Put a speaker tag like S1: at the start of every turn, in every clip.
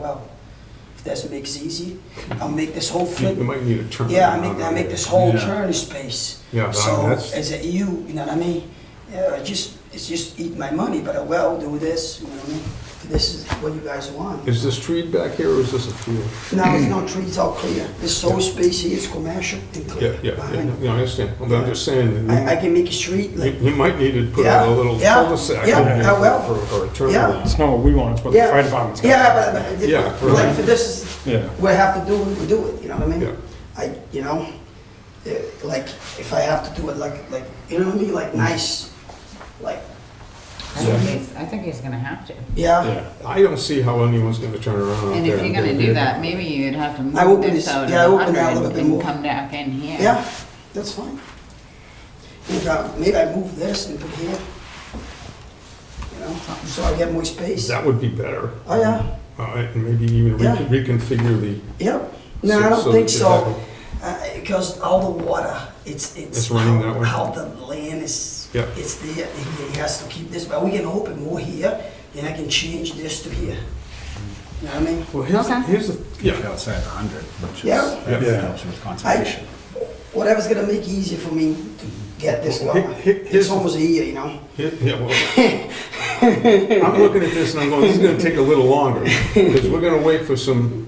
S1: well. If this makes easy, I'll make this whole
S2: You
S1: flip.
S2: you might need a turn.
S1: Yeah, I make, I make this whole
S3: Yeah.
S1: turn space.
S2: Yeah, but I-
S1: So,
S2: that's-
S1: as a EU, you know what I mean? Yeah, I just, it's just eat my money, but I will do this, you know what I mean? This is what you guys want.
S2: Is this tree back here or is this a field?
S1: Now, it's no trees, all clear. This whole space here is commercial and
S2: Yeah,
S1: clear.
S2: yeah,
S1: behind.
S2: yeah, no, I understand. But I'm just saying,
S1: I, I
S2: that
S1: can make a street
S2: you-
S1: like,
S2: you might need to put
S1: Yeah,
S2: a little
S1: yeah,
S2: cul-de-sac in
S1: yeah,
S2: there
S1: I will.
S2: for- for a turn.
S1: Yeah.
S2: lane.
S3: It's not what we want, it's what the
S1: Yeah.
S3: fire department's got.
S1: yeah, but, but,
S2: Yeah,
S1: it-
S2: right.
S1: like, for this is,
S3: Yeah,
S1: we have to do it, we do it, you know what I mean?
S2: Yeah.
S1: I, you know, eh, like, if I have to do it, like, like, you know what I mean, like, nice, like,
S4: I think he's, I think he's gonna have to.
S1: yeah.
S3: yeah.
S2: I don't see how anyone's gonna turn around out
S4: And
S2: there.
S4: if you're gonna do that, maybe you'd have to
S1: I
S4: move
S1: opened
S4: this
S1: this-
S4: out
S1: yeah, I
S4: a
S1: opened that a little
S4: hundred
S1: bit
S4: and
S1: more.
S4: come back in here.
S1: Yeah, that's fine. If I, maybe I move this and put here, you know, so I get more space.
S2: That would be better.
S1: Oh, yeah,
S2: Uh, And maybe even re-
S1: Yeah.
S2: reconfigure the,
S1: yep. No, I
S2: So- so
S1: don't think
S2: that you
S1: so. Uh, Because all the water, it's, it's.
S2: It's running
S1: how-
S2: that way?
S1: How the land is,
S2: Yep.
S1: it's there, he he has to keep this, but we can open more here, and I can change this to here. You know what I mean?
S2: well, here's,
S4: Okay.
S2: here's the,
S5: Keep it
S2: yeah,
S5: outside 100, which is,
S1: Yeah.
S2: Yeah.
S5: that helps with conservation.
S1: Whatever's gonna make it easier for me to get this
S2: Well, he-
S1: going.
S2: he-
S1: It's
S2: here's-
S1: almost here, you know?
S2: here- yeah, well. I'm looking at this and I'm going, this is gonna take a little longer, because we're gonna wait for some,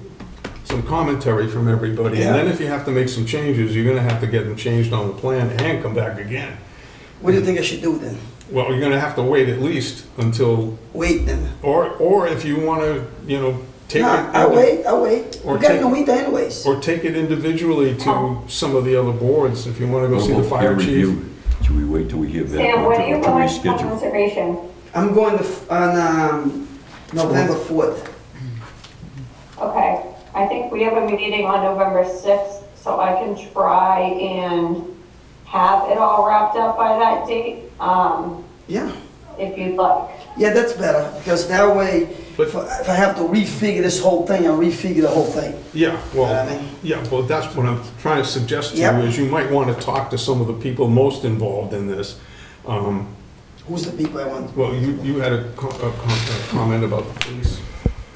S2: some commentary from everybody. And then
S1: Yeah.
S2: if you have to make some changes, you're gonna have to get them changed on the plan and come back again.
S1: What do you think I should do then?
S2: Well, you're gonna have to wait at least until,
S1: Wait then?
S2: or, or if you wanna, you know, take it.
S1: No, I
S2: into-
S1: wait, I wait.
S2: or
S1: We got
S2: take-
S1: no winter anyways.
S2: Or take it individually
S1: Oh.
S2: to some of the other boards, if you wanna go see the
S6: Well,
S2: fire
S6: peer
S2: chief.
S6: review. Should we wait till we hear that,
S7: Sam,
S6: or
S7: what
S6: to
S7: are you
S6: or to
S7: going for
S6: reschedule?
S7: conservation?
S1: I'm going to, f- on, um, November fourth.
S7: Okay, I think we have a meeting on November 6th, so I can try and have it all wrapped up by that date, um,
S1: Yeah,
S7: if you'd like.
S1: yeah, that's better, because that way,
S2: But-
S1: if I if I have to refigure this whole thing, I'll refigure the whole thing.
S2: Yeah,
S1: I
S2: well,
S1: mean-
S2: yeah, well, that's what I'm trying to suggest to you,
S1: Yep.
S2: is you might wanna talk to some of the people most involved in this. Um,
S1: Who's the people I want?
S2: Well, you, you had a co- a com- a comment about the police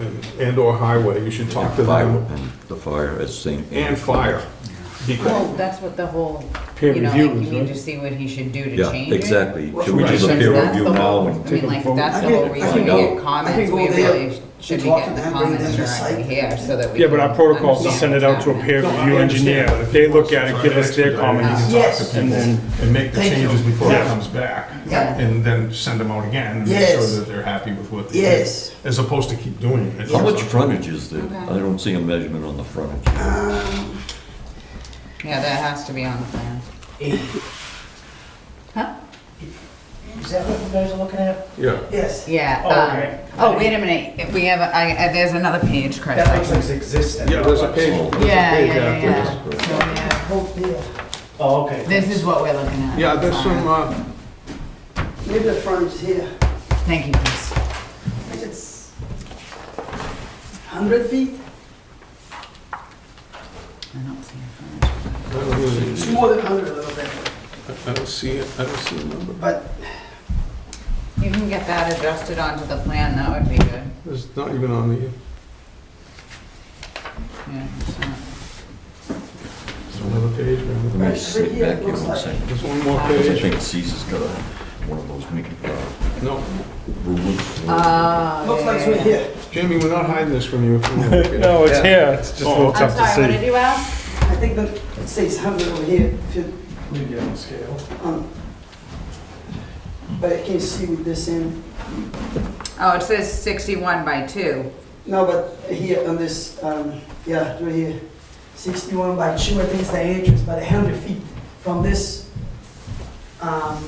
S2: and, and/or highway, you should talk to
S6: Fire
S2: them.
S6: and The fire at St.
S2: And fire.
S4: Well,
S2: Because-
S4: that's what the whole,
S3: Peer
S4: you know, like
S3: review
S4: you
S3: is,
S4: need
S3: right?
S4: to see what he should do to
S6: Yeah,
S4: change it.
S6: exactly. Should we
S3: Right.
S6: do the
S3: Since
S6: peer
S3: that's
S6: review
S4: the
S6: now?
S4: whole-
S6: and-
S4: I mean, like, that's the
S1: I
S4: whole
S1: can- I
S4: reason
S1: can
S4: we
S1: go- I
S4: get
S1: can
S4: comments,
S1: go
S4: we
S1: there
S4: really should be
S1: talk to
S4: getting
S1: them, bring
S4: comments
S1: them aside.
S4: directly here, so that we
S3: Yeah,
S4: can.
S3: but our protocol is to send it out to a
S4: understand
S3: peer
S2: No, I
S3: review
S2: understand,
S3: engineer.
S2: but if
S3: They
S2: you
S3: look
S2: want
S3: at
S2: to
S3: it, give us their
S2: try to
S3: comments.
S1: Yes,
S3: And then,
S2: And make the
S1: Thank
S2: changes
S1: you.
S2: before it
S3: Yeah.
S2: comes back.
S1: Yeah.
S2: And then send them out again, and make
S1: Yes.
S2: sure that they're happy with what they did.
S1: Yes.
S2: As opposed to keep doing it.
S6: How much frontage is there?
S4: Okay.
S6: I don't see a measurement on the frontage.
S1: Um,
S4: that. Yeah, that has to be on the plan. Huh?
S8: Is that what you guys are looking at?
S2: Yeah.
S1: yes.
S4: Yeah,
S8: Oh, okay.
S4: um, oh, wait a minute, If we have, a- I, I- there's another page, Chris.
S8: That looks like it's existing.
S2: Yeah, there's a page, there's a page
S4: Yeah, yeah, yeah,
S2: after this.
S4: yeah. So, yeah,
S1: Hope there.
S8: Oh, okay.
S4: This is what we're looking at.
S2: Yeah, there's some, uh,
S1: Maybe the front is here.
S4: Thank you, Chris.
S1: Like It's hundred feet?
S4: I don't see a frontage.
S2: I don't really-
S1: It's more than hundred a little bit,
S2: I don't see it, I don't see a number.
S1: but
S4: You can get that adjusted onto the plan, that would be good.
S2: It's not even on the,
S4: Yeah, it's not-
S2: it's another page,
S6: Let
S2: man.
S6: me
S1: Right, right
S6: sit
S1: here,
S6: back here
S1: looks
S6: one
S1: like-
S6: second.
S2: There's one more
S6: I
S2: page.
S6: think Caesar's got a, one of those Mickey, uh,
S2: No,
S6: rulers.
S4: Oh,
S1: looks
S4: yeah,
S1: like it's
S4: yeah,
S1: right
S4: yeah.
S1: here.
S2: Jamie, we're not hiding this from you. if you wanna look at it.
S3: no, it's here, it's just a
S2: Oh,
S3: little
S4: I'm
S3: tough to
S4: sorry, what did
S3: see.
S4: you ask?
S1: I think that it says hundred over here, if you,
S8: Maybe on scale.
S1: um, but I can't see with this in.
S4: Oh, it says 61 by 2.
S1: No, but here on this, um, yeah, right here, sixty-one by two, I think it's the entrance, but hundred feet from this, um,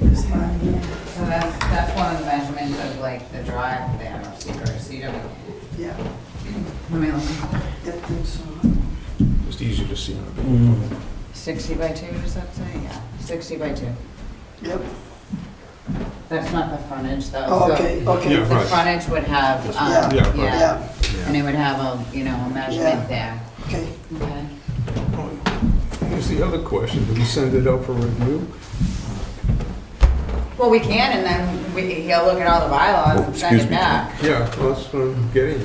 S1: this line here.
S4: So that's, that's one of the measurements of like the drive there, or CW.
S1: Yeah,
S4: Let me look.
S1: I think so.
S2: Just easier to see on a page.
S4: Mm. 60 by 2, does that say? Yeah, 60 by 2.
S1: Yep.
S4: That's not the frontage though.
S1: Oh,
S4: so
S1: okay, okay.
S2: Yeah.
S4: The
S2: right.
S4: frontage would have,
S1: Yeah.
S4: um,
S2: Yeah, right.
S4: yeah,
S1: Yeah,
S4: and it would have a, you know, a measurement there.
S1: okay.
S4: Okay.
S2: Here's the other question, did we send it out for review?
S9: Well, we can, and then we, he'll look at all the bylaws and send
S4: Excuse
S9: it
S4: me, Tom.
S9: back.
S2: Yeah, well, that's what I'm getting at.